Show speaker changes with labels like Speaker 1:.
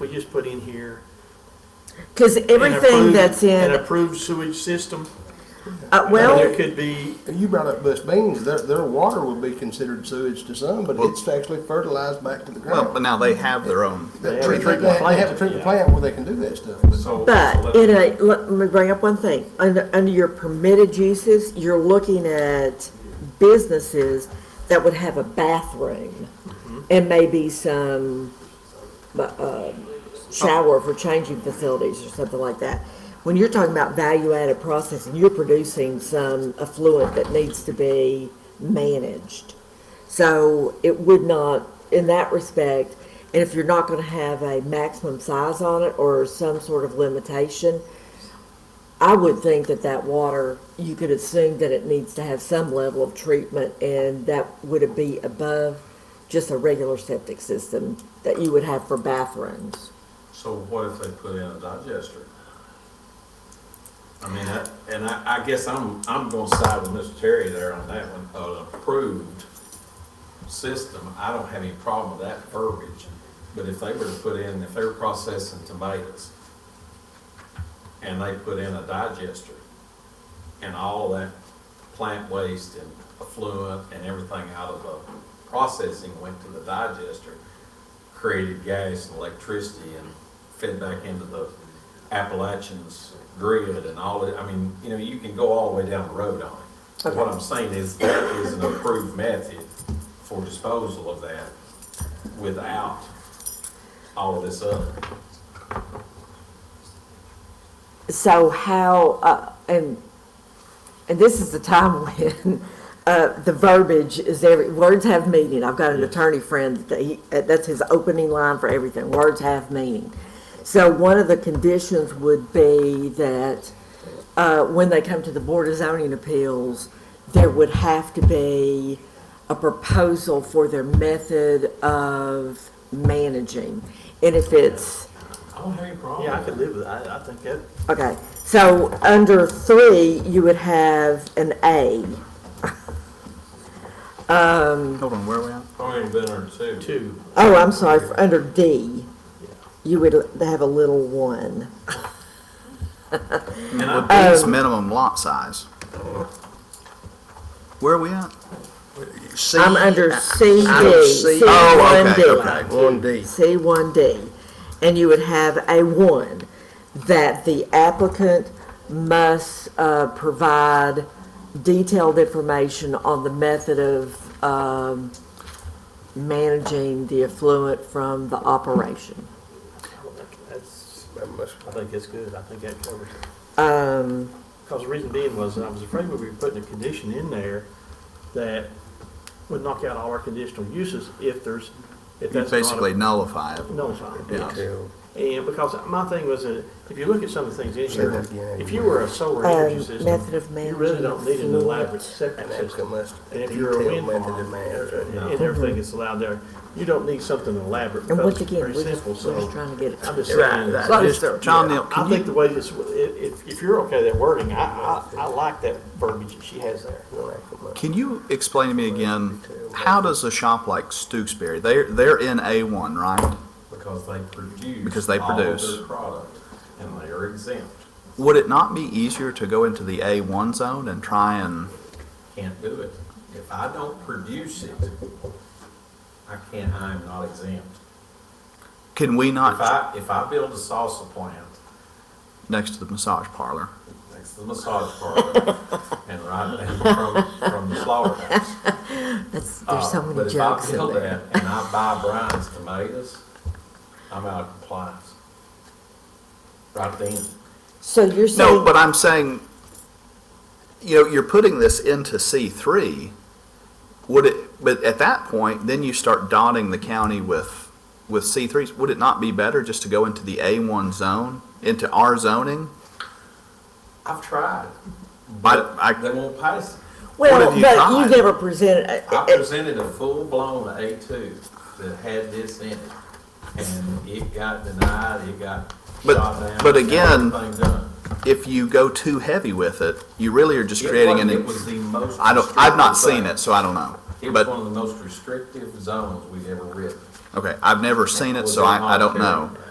Speaker 1: We just put in here.
Speaker 2: Because
Speaker 1: an
Speaker 2: everything
Speaker 1: approved-
Speaker 2: that's
Speaker 1: An
Speaker 2: in,
Speaker 1: approved sewage system.
Speaker 2: uh,
Speaker 1: There
Speaker 2: well,
Speaker 1: could be,
Speaker 3: You brought up Bush Beans, their, their water would be considered sewage to some, but
Speaker 4: Well-
Speaker 3: it's actually fertilized back to the
Speaker 4: Well, but
Speaker 3: ground.
Speaker 4: now they have their own.
Speaker 3: They
Speaker 1: They
Speaker 3: they-
Speaker 1: have a
Speaker 3: they-
Speaker 1: treatment
Speaker 3: they have a
Speaker 1: plant,
Speaker 3: treatment
Speaker 1: yeah.
Speaker 3: plant where they can do that stuff, but
Speaker 5: So.
Speaker 2: but
Speaker 5: so
Speaker 2: in
Speaker 5: let-
Speaker 2: a, let me bring up one thing. Under, under your permitted uses, you're looking at businesses that would have a bathroom and maybe some, uh, shower for changing facilities or something like that. When you're talking about value-added processing, you're producing some affluent that needs to be managed. So it would not, in that respect, and if you're not gonna have a maximum size on it or some sort of limitation, I would think that that water, you could assume that it needs to have some level of treatment and that would be above just a regular septic system that you would have for bathrooms.
Speaker 5: So what if they put in a digester? I mean, I- and I, I guess I'm, I'm gonna side with Mr. Terry there on that one, an approved system, I don't have any problem with that verbiage. But if they were to put in, if they were processing tomatoes, and they put in a digester, and all that plant waste and effluent and everything out of the processing went to the digester, created gas and electricity and fed back into the Appalachians grid and all that. I mean, you know, you can go all the way down the road on it. What I'm saying is that is an approved method for disposal of that without all of this other.
Speaker 2: So how, uh, and, and this is the time when, uh, the verbiage is every, words have meaning. I've got an attorney friend that he, uh, that's his opening line for everything, words have meaning. So one of the conditions would be that, uh, when they come to the Board of Zoning Appeals, there would have to be a proposal for their method of managing. And if it's,
Speaker 5: I don't have any problem.
Speaker 1: yeah, I could live with that. I I think that,
Speaker 2: Okay, so under three, you would have an A.
Speaker 4: Hold on, where are we at?
Speaker 5: Probably been there too.
Speaker 1: too.
Speaker 2: Oh, I'm sorry, for- under D, you would have a little one.
Speaker 5: And I,
Speaker 4: Base minimum lot size. Where are we at? C?
Speaker 2: I'm under CD,
Speaker 4: Under C. Oh, okay, okay, one D.
Speaker 2: C1D, and you would have A1, that the applicant must uh, provide detailed information on the method of um, managing the affluent from the operation.
Speaker 1: That's,
Speaker 3: that must,
Speaker 1: I think that's good. I think that covers it.
Speaker 2: Um,
Speaker 1: Because the reason being was, I was afraid we were putting a condition in there that would knock out all our conditional uses if there's, if
Speaker 4: You
Speaker 1: that's not.
Speaker 4: basically nullify it.
Speaker 1: Nullified.
Speaker 4: Yeah.
Speaker 3: tell.
Speaker 1: And because my thing was that if you look at some of the things in
Speaker 3: Say
Speaker 1: here,
Speaker 3: that again.
Speaker 1: if you were a solar
Speaker 2: Um,
Speaker 1: energy
Speaker 2: method of
Speaker 1: system, you really don't need an
Speaker 2: managing
Speaker 1: elaborate
Speaker 2: fluids.
Speaker 1: septic
Speaker 3: And
Speaker 1: system.
Speaker 3: applicant must
Speaker 1: And if you're a
Speaker 3: detail
Speaker 1: wind
Speaker 3: method of
Speaker 1: farm,
Speaker 3: management.
Speaker 1: and and everything that's allowed there, you don't need something elaborate,
Speaker 2: And
Speaker 1: because
Speaker 2: once
Speaker 1: it's
Speaker 2: again,
Speaker 1: very
Speaker 2: we're just,
Speaker 1: simple,
Speaker 2: we're just
Speaker 1: so.
Speaker 2: trying to get it.
Speaker 1: I'm just
Speaker 4: Right,
Speaker 1: saying,
Speaker 4: right.
Speaker 1: I
Speaker 4: Just- John Neal, can
Speaker 1: think
Speaker 4: you,
Speaker 1: the way this, if, if you're okay with that wording, I, I, I like that verbiage that she has there.
Speaker 4: can you explain to me again, how does a shop like Stewksbury, they're, they're in A1, right?
Speaker 5: because they produce.
Speaker 4: Because they
Speaker 5: all of
Speaker 4: produce.
Speaker 5: their product, and they are exempt,
Speaker 4: Would it not be easier to go into the A1 zone and try and,
Speaker 5: can't do it. If I don't produce it, I can't, I am not exempt.
Speaker 4: can we
Speaker 5: If
Speaker 4: not,
Speaker 5: I, if I build a salsa plant
Speaker 4: next to the massage parlor?
Speaker 5: next to the massage parlor and right down from, from the slaughterhouse.
Speaker 2: That's,
Speaker 5: uh,
Speaker 2: there's so
Speaker 5: but
Speaker 2: many
Speaker 5: if I
Speaker 2: jokes in
Speaker 5: build
Speaker 2: there.
Speaker 5: that And I buy Brian's tomatoes, I'm out of compliance. Right then.
Speaker 2: So you're
Speaker 4: No,
Speaker 2: saying,
Speaker 4: but I'm saying, you know, you're putting this into C3. Would it, but at that point, then you start dotting the county with, with C3s. Would it not be better just to go into the A1 zone, into our zoning?
Speaker 5: I've tried.
Speaker 4: But
Speaker 5: They
Speaker 4: I,
Speaker 5: won't pass it.
Speaker 4: what
Speaker 2: well,
Speaker 4: have you
Speaker 2: but you
Speaker 4: tried?
Speaker 2: never presented,
Speaker 5: I
Speaker 2: uh, uh,
Speaker 5: presented a full-blown A2 that had this in it, and it got denied, it got
Speaker 4: But-
Speaker 5: shot down.
Speaker 4: but
Speaker 5: it got
Speaker 4: again,
Speaker 5: everything done.
Speaker 4: if you go too heavy with it, you really are just
Speaker 5: It
Speaker 4: creating
Speaker 5: was-
Speaker 4: an,
Speaker 5: It was the most.
Speaker 4: I don't, I've not
Speaker 5: restrictive
Speaker 4: seen
Speaker 5: thing.
Speaker 4: it, so I don't know.
Speaker 5: It was one
Speaker 4: But,
Speaker 5: of the most restrictive zones we've ever written.
Speaker 4: okay, I've never seen it,
Speaker 5: Was
Speaker 4: so I, I don't
Speaker 5: voluntary.
Speaker 4: know.